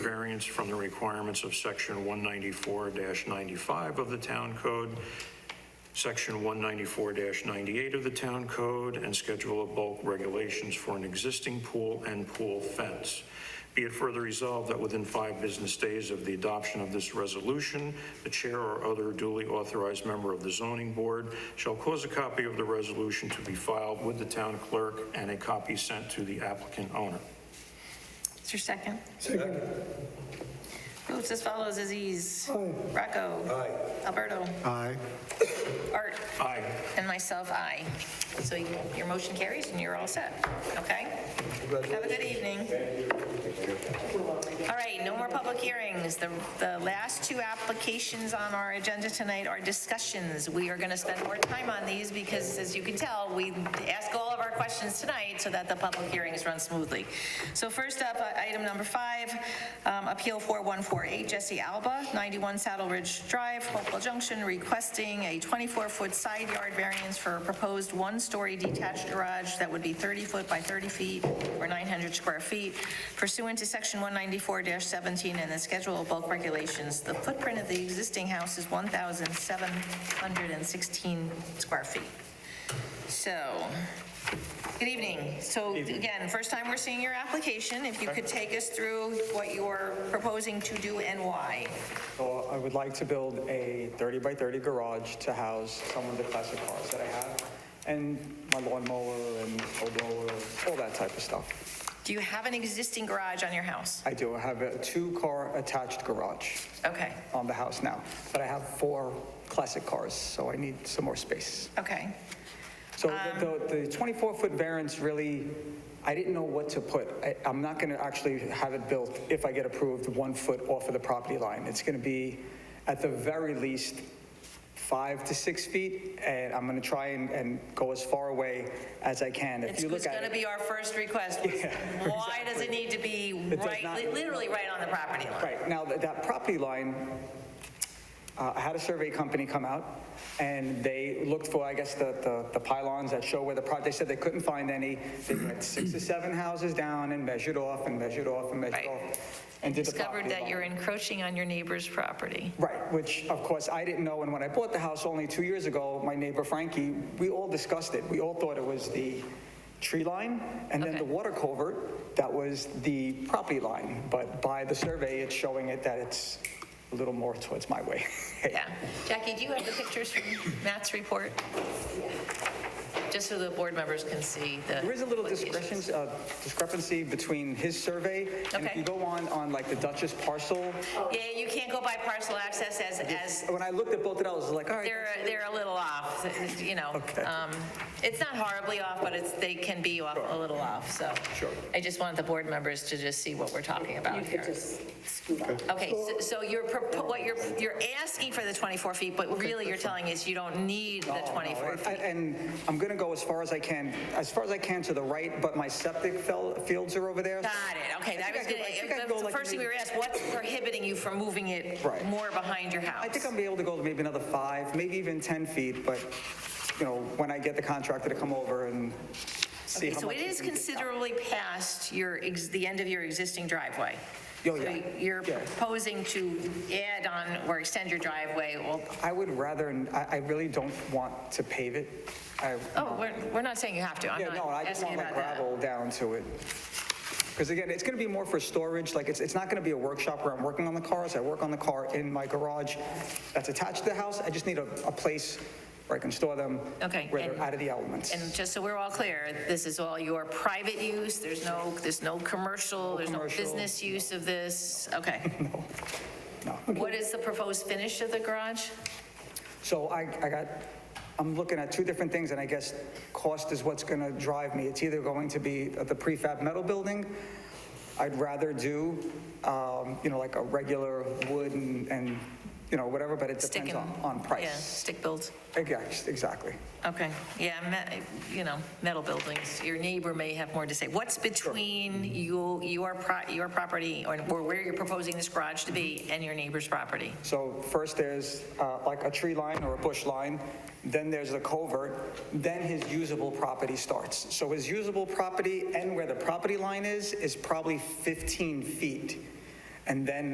variance from the requirements of section 194-95 of the town code, section 194-98 of the town code, and schedule of bulk regulations for an existing pool and pool fence. Be it further resolved that within five business days of the adoption of this resolution, the chair or other duly authorized member of the zoning board shall cause a copy of the resolution to be filed with the town clerk and a copy sent to the applicant owner. Is there a second? Second. Votes as follows, Aziz. Aye. Rocco. Aye. Alberto. Aye. Art. Aye. And myself, aye. So you- your motion carries and you're all set, okay? Have a good evening. All right, no more public hearings. The, the last two applications on our agenda tonight are discussions. We are going to spend more time on these because, as you can tell, we ask all of our questions tonight so that the public hearings run smoothly. So first up, uh, item number five, um, Appeal 4148, Jesse Alba, 91 Saddle Ridge Drive, Hopewell Junction, requesting a 24-foot side yard variance for a proposed one-story detached garage that would be 30 foot by 30 feet or 900 square feet pursuant to Section 194-17 and the Schedule of Bulk Regulations. The footprint of the existing house is 1,716 square feet. So, good evening. So again, first time we're seeing your application. If you could take us through what you're proposing to do and why. So I would like to build a 30 by 30 garage to house some of the classic cars that I have, and my lawnmower and snow blower, all that type of stuff. Do you have an existing garage on your house? I do have a two-car attached garage Okay, on the house now, but I have four classic cars, so I need some more space. okay. So the- the 24-foot variance really, I didn't know what to put. I- I'm not going to actually have it built, if I get approved, one foot off of the property line. It's going to be, at the very least, five to six feet, and I'm going to try and- and go as far away as I can. If It's you look going to at it, be our first request. Why does it need to be does right, not- li- literally right on the property line? Right, now, that that property line, uh, I had a survey company come out, and they looked for, I guess, the- the the pylons that show where the, pro- they said they couldn't find any. They went six or seven houses down and measured off and measured off and measured Right. off. and did the Discovered property that line. you're encroaching on your neighbor's property. Right, which, of course, I didn't know, and when I bought the house only two years ago, my neighbor Frankie, we all discussed it. We all thought it was the tree line, and then Okay. the water culvert, that was the property line. But by the survey, it's showing it that it's a little more towards my way. Yeah. Jackie, do you have the pictures from Matt's report? Just so the board members can see the. There is a little what the issue is. discrepancy, uh, discrepancy between his survey, and Okay. if you go on, on like the Duchess parcel, Yeah, you can't go by parcel access as, as, when I looked at both of those, I was like, all right, they're, uh, they're a little off, you know. Okay. Um, It's not horribly off, but it's, they can be off, a little off, so. Sure. I just want the board members to just see what we're talking about here. Okay, so- so you're, propo- what you're, you're asking for the 24 feet, but really you're telling us you don't need the 24 feet. I- And I'm going to go as far as I can, as far as I can to the right, but my septic fel- fields are over there. Got it, okay, I that think was I could- I think I could good. go The like first thing we were maybe- asked, what's prohibiting you from moving it Right. more behind your house? I think I'm be able to go to maybe another five, maybe even 10 feet, but, you know, when I get the contractor to come over and see Okay, how so much. it is we can- considerably past your, ex- the end of your existing driveway. Oh, yeah. So You're Yeah. proposing to add on or extend your driveway, well, I would rather, I I really don't want to pave it. I- oh, we're, we're not saying you have to, I'm Yeah, not no, I just asking want my about that. gravel down to it. Because again, it's going to be more for storage, like, it's, it's not going to be a workshop where I'm working on the cars. I work on the car in my garage that's attached to the house. I just need a, a place where I can store them. Okay, Where they're and- out of the elements. And just so we're all clear, this is all your private use, there's no, there's no commercial, there's no commercial. business use of this, okay. No. What is the proposed finish of the garage? So I, I got, I'm looking at two different things, and I guess cost is what's going to drive me. It's either going to be the prefab metal building. I'd rather do, um, you know, like a regular wood and, and, you know, whatever, but it Stick depends and- on, on Yeah, price. stick built. Ex- Exactly. Okay, yeah, me- you know, metal buildings, your neighbor may have more to say. What's between you, your, pro- your property, or or where you're proposing this garage to be, and your neighbor's property? So first there's uh, like a tree line or a bush line, then there's the culvert, then his usable property starts. So his usable property and where the property line is, is probably 15 feet. And then